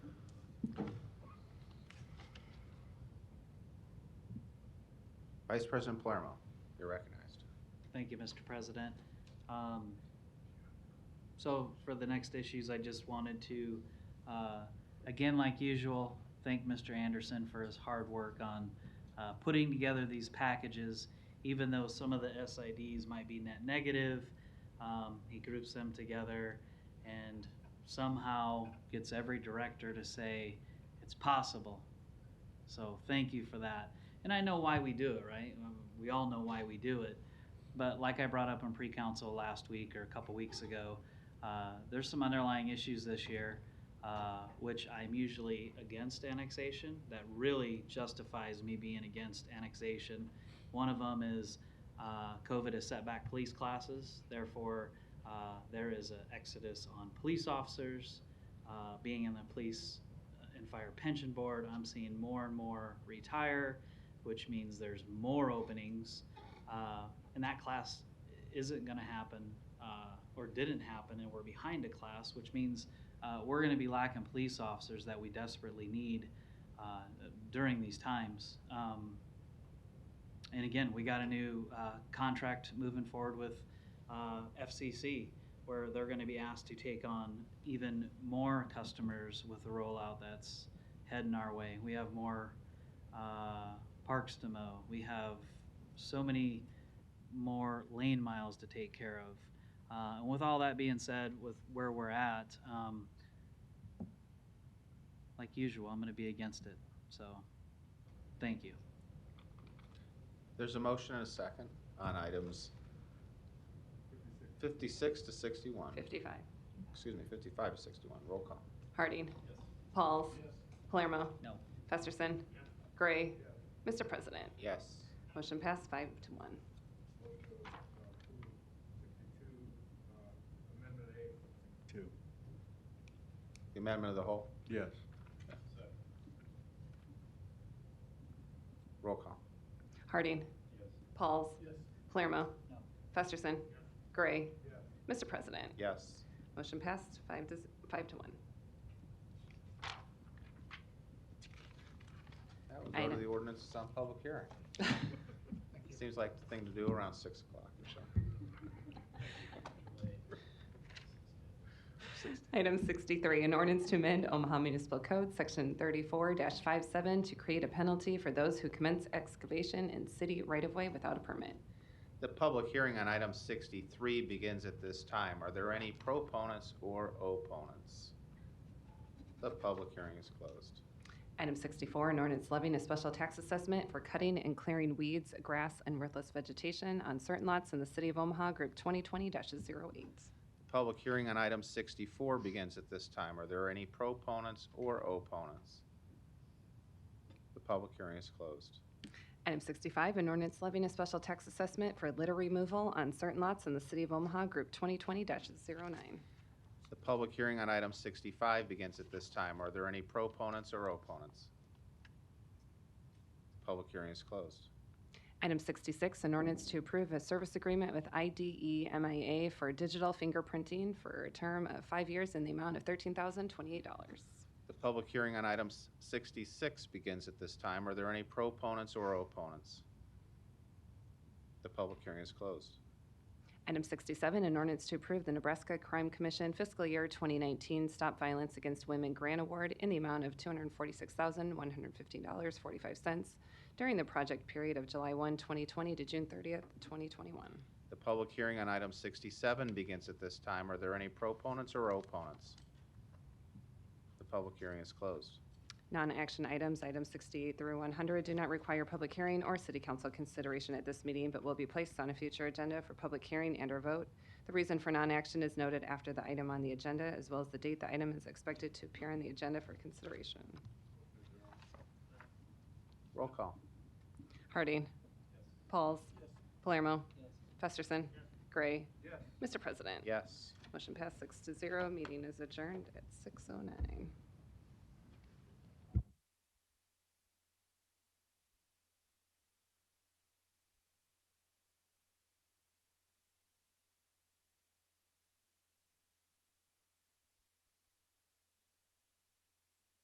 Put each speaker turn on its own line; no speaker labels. Vice President Palermo, you're recognized.
Thank you, Mr. President. Um, So for the next issues, I just wanted to, uh, again, like usual, thank Mr. Anderson for his hard work on uh, putting together these packages, even though some of the SIDs might be net negative. um, He groups them together and somehow gets every director to say, it's possible. So thank you for that. And I know why we do it, right? Um, We all know why we do it. But like I brought up in pre-council last week or a couple weeks ago, uh, there's some underlying issues this year, uh, which I'm usually against annexation. That really justifies me being against annexation. One of them is uh, COVID has set back police classes. Therefore, uh, there is an exodus on police officers uh, being in the police uh, and fire pension board. I'm seeing more and more retire, which means there's more openings uh, and that class isn't going to happen uh, or didn't happen, and we're behind a class, which means uh, we're going to be lacking police officers that we desperately need uh, during these times. Um, and again, we got a new uh, contract moving forward with uh, FCC, where they're going to be asked to take on even more customers with the rollout that's heading our way. We have more uh, parks to mow. We have so many more lane miles to take care of. Uh, and with all that being said, with where we're at, um, like usual, I'm going to be against it. So, thank you.
There's a motion and a second on items 56 to 61,
55.
excuse me, 55 to 61, roll call.
Harding. Pauls. Palermo.
No.
Festerson. Gray. Mr. President,
Yes.
motion passed five to one.
Two.
The amendment of the whole,
Yes.
roll call.
Harding. Pauls. Palermo.
No.
Festerson. Gray. Mr. President,
Yes.
motion passed five to, five to one.
That would go to
Item.
the ordinance that's on public hearing. Seems like the thing to do around 6 o'clock or so.
Item 63, an ordinance to amend Omaha Municipal Code, Section 34-57, to create a penalty for those who commence excavation in city right-of-way without a permit.
The public hearing on item 63 begins at this time. Are there any proponents or opponents? The public hearing is closed.
Item 64, an ordinance levying a special tax assessment for cutting and clearing weeds, grass, and worthless vegetation on certain lots in the city of Omaha, Group 2020-08.
The public hearing on item 64 begins at this time. Are there any proponents or opponents? The public hearing is closed.
Item 65, an ordinance levying a special tax assessment for litter removal on certain lots in the city of Omaha, Group 2020-09.
The public hearing on item 65 begins at this time. Are there any proponents or opponents? Public hearing is closed.
Item 66, an ordinance to approve a service agreement with E IDE MIA for digital fingerprinting for a term of five years in the amount of $13,028.
The public hearing on item s- 66 begins at this time. Are there any proponents or opponents? The public hearing is closed.
Item 67, an ordinance to approve the Nebraska Crime Commission Fiscal Year 2019 Stop Violence Against Women Grant Award in the amount of $246,115.45 during the project period of July 1, 2020 to June 30th, 2021.
The public hearing on item 67 begins at this time. Are there any proponents or opponents? The public hearing is closed.
Non-action items, items 68 through 100, do not require public hearing or city council consideration at this meeting, but will be placed on a future agenda for public hearing and/or vote. The reason for non-action is noted after the item on the agenda, as well as the date the item is expected to appear on the agenda for consideration.
Roll call.
Harding. Pauls. Palermo.
Yes.
Festerson. Gray. Mr. President.
Yes.
Motion passed six oh to zero. Meeting is adjourned at 6:09.